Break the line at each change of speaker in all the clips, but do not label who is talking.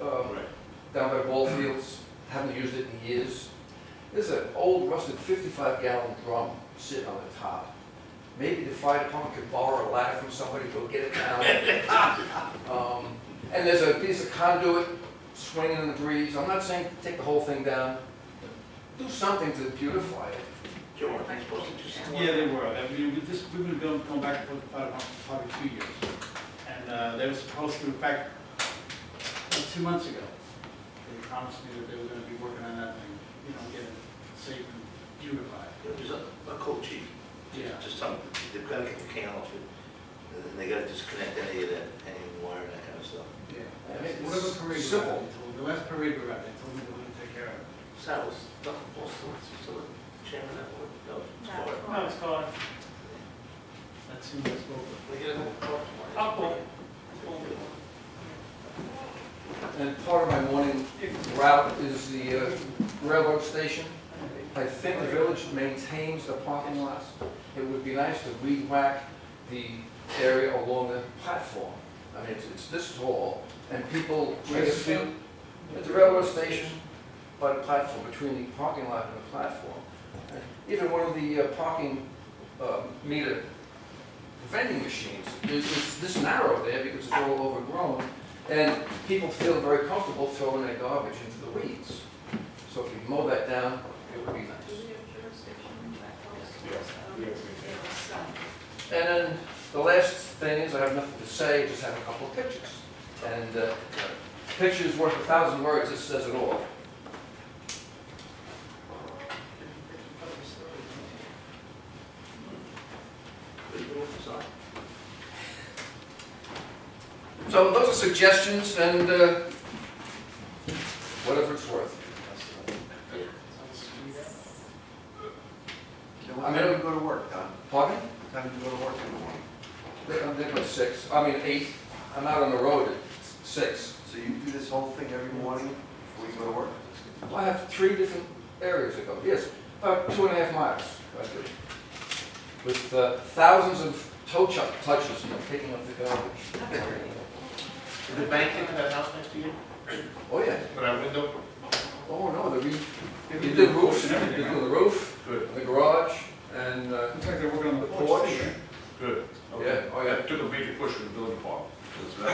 Um, down by ball fields, haven't used it in years. There's an old rusted fifty-five gallon drum sitting on the top. Maybe the fire department could borrow a ladder from somebody, go get it down. Um, And there's a piece of conduit swinging in the breeze. I'm not saying take the whole thing down, but do something to beautify it.
Joe, aren't they supposed to do some work?
Yeah, they were. I mean, we just, we've been going, going back and forth about it for probably two years. And, uh, they were supposed to, in fact, uh, two months ago, they promised me that they were gonna be working on that thing, you know, get it safe and beautified.
There's a, a coach chief,
Yeah.
just tell them, they've gotta get the can off it, and then they gotta disconnect any of that, any wire and that kind of stuff.
Yeah.
I mean,
Whatever
it's
parade we were
simple.
at, they told, the last parade we were at, they told me they were gonna take care of it.
Sal was stuck in both sides, you still the chairman that one, no, it's
No.
far.
No, it's gone. That seemed to spoke of.
We get a whole car tomorrow.
I'll call.
And part of my morning route is the uh, railroad station. I think the village maintains the parking lots. It would be nice to weed whack the area along the platform. I mean, it's, it's this tall, and people, I guess, feel, at the railroad station, by the platform, between the parking lot and the platform. And Even one of the uh, parking uh, meter vending machines, is it's this narrow there because it's all overgrown. And people feel very comfortable throwing their garbage into the weeds. So if you mow that down, it would be
Do
nice.
we have jurisdiction in that house?
Yes, we have.
Yes, um,
And then the last thing is, I have nothing to say, just have a couple of pictures. And uh, pictures worth a thousand words, this says it all.
What are you doing inside?
So those are suggestions and uh, whatever it's worth.
So what time do you go to work, Don?
Pardon?
What time do you go to work in the morning?
I'm there by six, I mean eight. I'm out on the road at six.
So you do this whole thing every morning before you go to work?
I have three different areas to go, yes, about two and a half miles, I do. With uh, thousands of toe chuck touches, you know, picking up the garbage.
that's all right.
Did the bank into that house next to you?
Oh, yeah,
Put out window?
oh, no, the re,
They
you
were
do
doing
roofs,
and
you
everything,
do
right?
the roof,
Good,
the garage, and, uh,
In fact, they're working on the
The
porch,
porch.
too, right?
Good.
yeah,
I
oh, yeah.
took a major push from the building department. 'cause, uh,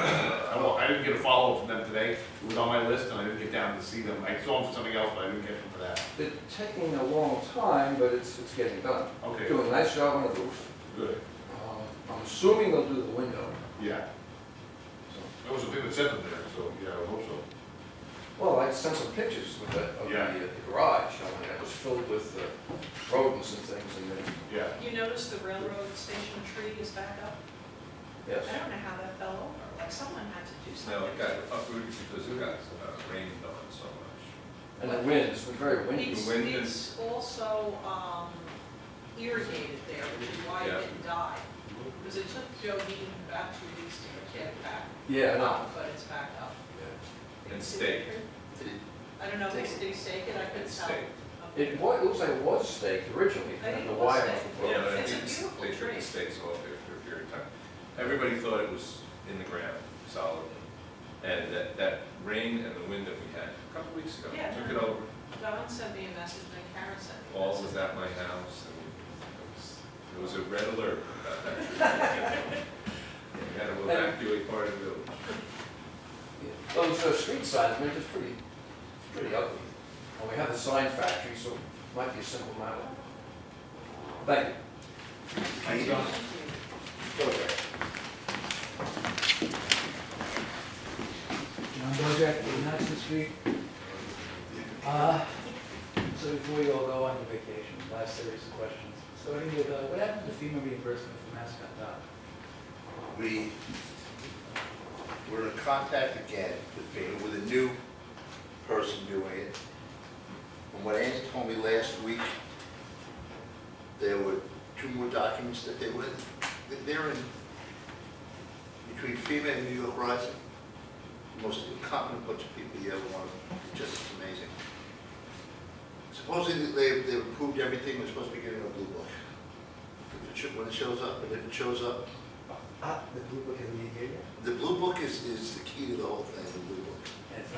I don't- I didn't get a follow-up from them today. It was on my list and I didn't get down to see them. I saw them for something else, but I didn't get them for that.
It's taking a long time, but it's, it's getting done.
Okay,
Doing a nice job on the roof.
good,
Um, I'm assuming they'll do the window.
yeah. So, That was the thing that sent them there, so, yeah, I hope so.
Well, I sent some pictures of the, of the
Yeah.
uh, the garage, I mean, it was filled with uh, rodents and things, and then,
Yeah,
You notice the railroad station tree is back up? I
yes.
don't know how that fell over, like someone had to do
No, it
something.
got uprooted because it got uh, rained on so much.
And the wind, it's been very windy.
It's,
wind
it's also um, irrigated there, which is why it
Yeah.
didn't die. Because it took Joe Bean about two weeks to get it back
Yeah, no.
up, but it's back up.
And stake.
Did it-
I don't know if it's, did he stake it? I couldn't
It's
tell.
staked.
Okay.
It was, it looks like it was staked originally,
I
and
think
the
it was
wire was
staked.
Yeah,
broken.
but I
It's a
think it's-
beautiful
they took
tree.
the stakes off there for a period of time. Everybody thought it was in the ground, solid. And that, that rain and the wind that we had a couple weeks ago
Yeah,
took
no.
it over.
Don sent me a message, then Karen sent me a
All
message.
was at my house and it was, it was a red alert about that. We had to evacuate part of the village.
Yeah. Those uh, street signs, I mean, it's pretty, pretty ugly. And we have the sign factory, so it might be a simple matter. Thank you.
Thanks, Don.
Thank you.
John Bojack, Hudson Street. Uh, So before you all go on your vacation, last series of questions. Starting with, uh, what happened to FEMA reimbursement for Mascot Dock?
we, we're in contact again with, Bayer, with a new person doing it. And what Andy told me last week, there were two more documents that they were, that they're in, between FEMA and New York Rising, the most incompetent bunch of people you ever want, to- just amazing. Supposedly, they, they approved everything, we're supposed to be getting a blue book. If it should- When it shows up, and if it shows up,
Ah, the blue book hasn't been here yet?
the blue book is, is the key to the whole thing, the blue book.
And it's